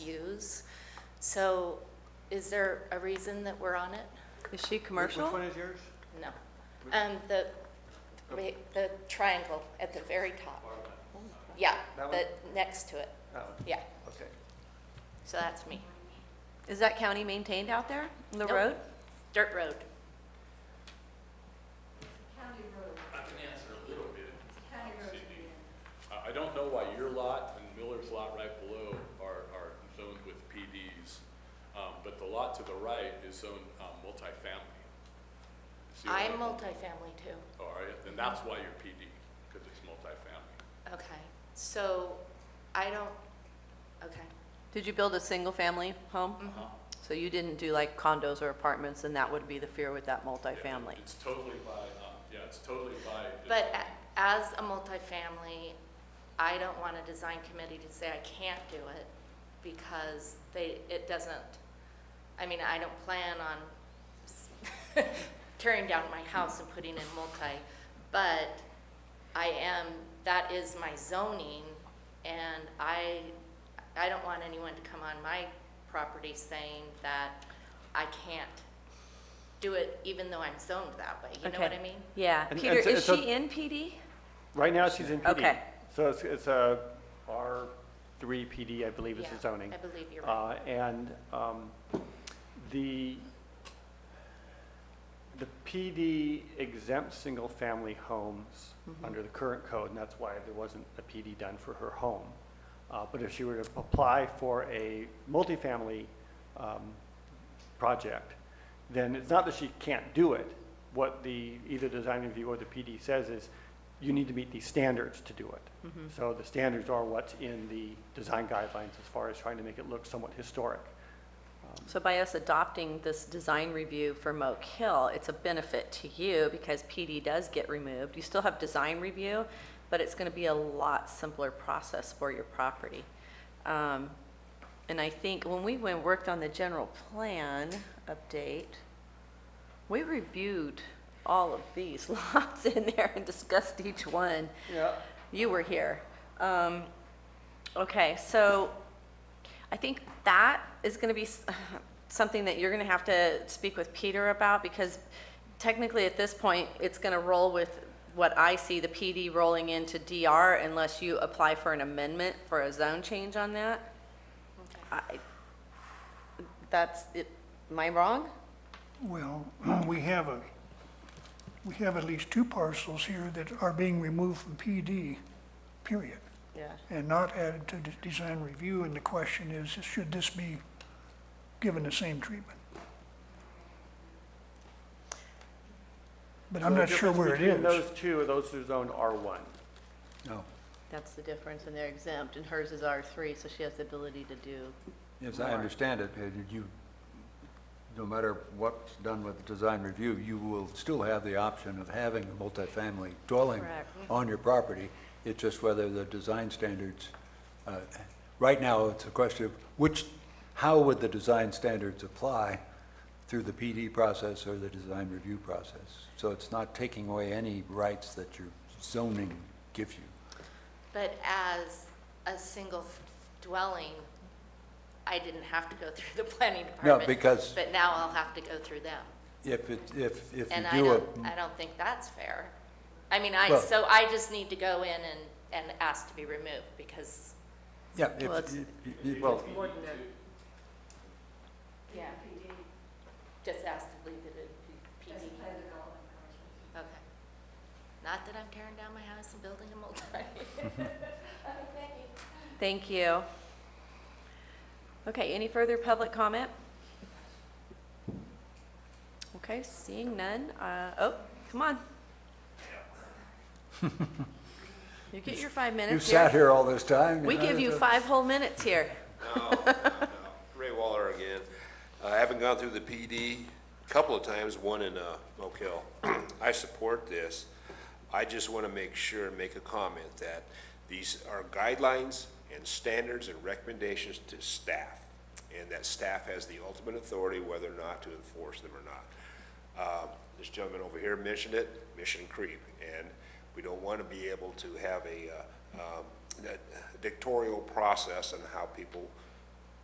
use. So is there a reason that we're on it? Is she commercial? Which one is yours? No. Um, the, wait, the triangle at the very top. Yeah, That one? the, next to it, That one, yeah. Oh, okay. So that's me. Is that county maintained out there, the Nope. road? Dirt road. I can answer a little bit. Sydney. I, I don't know why your lot and Miller's lot right below are, are zoned with PDs. Um, but the lot to the right is zoned, um, multifamily. See what I'm I'm- multifamily too. Oh, are you? Then that's why you're PD, because it's multifamily. Okay, so I don't, okay. Did you build a single-family home? Mm-hmm. So you didn't do like condos or apartments, and that would be the fear with that multifamily? Yeah, It's totally by, um, yeah, it's totally by. the- But a- as a multifamily, I don't want a design committee to say I can't do it because they, it doesn't, I mean, I don't plan on s- tearing down my house and putting in multi, but I am, that is my zoning, and I, I don't want anyone to come on my property saying that I can't do it even though I'm zoned that way, you know what Okay. I mean? Yeah. And- Peter, and so- is so- she in PD? Right now, she's in PD. Okay. So it's, it's a R3 PD, I believe is the Yeah, zoning. I believe you're right. Uh, And um, the, the PD exempts single-family homes Mm-hmm. under the current code, and that's why there wasn't a PD done for her home. Uh, But if she were to apply for a multifamily um, project, then it's not that she can't do it. What the, either design review or the PD says is, you need to meet these standards to do it. So the standards are what's in the design guidelines as far as trying to make it look somewhat historic. So by us adopting this design review for Moke Hill, it's a benefit to you because PD does get removed. You still have design review, but it's going to be a lot simpler process for your property. Um, And I think when we went, worked on the general plan update, we reviewed all of these lots in there and discussed each one. Yeah. You were here. Um, Okay, so I think that is going to be s- something that you're going to have to speak with Peter about because technically at this point, it's going to roll with what I see, the PD rolling into DR unless you apply for an amendment for a zone change on that. I- That's, it. am I wrong? Well, we have a, we have at least two parcels here that are being removed from PD, period, Yeah. and not added to the design review, and the question is, should this be given the same treatment? But I'm not sure where it Between is. those two, those are zoned R1. No, That's the difference, and they're exempt, and hers is R3, so she has the ability to do as I understand it, uh, you, no matter what's done with the design review, you will still have the option of having a multifamily dwelling Correct. on your property. It's just whether the design standards, uh, right now, it's a question of which, how would the design standards apply through the PD process or the design review process? So it's not taking away any rights that your zoning gives you. But as a single dwelling, I didn't have to go through the planning department. because- But now I'll have to go through them. If it, if, if you And I do a... don't, I don't think that's fair. I mean, I, Well- so I just need to go in and, and ask to be removed because. Yeah, Well, it's- if, you- you- Well, Yeah. Just ask to leave it at PD. Okay. Not that I'm tearing down my house and building a multi. Thank you. Okay, any further public comment? Okay, seeing none, uh, oh, come on. You get your five you minutes sat here. here all this time. We know, give you so- five whole minutes here. Ray Waller again. Uh, I haven't gone through the PD a couple of times, one in uh, Oak Hill. I support this. I just want to make sure and make a comment that these are guidelines and standards and recommendations to staff, and that staff has the ultimate authority whether or not to enforce them or not. Uh, This gentleman over here mentioned it, mission creep, and we don't want to be able to have a uh, um, a dictatorial process on how people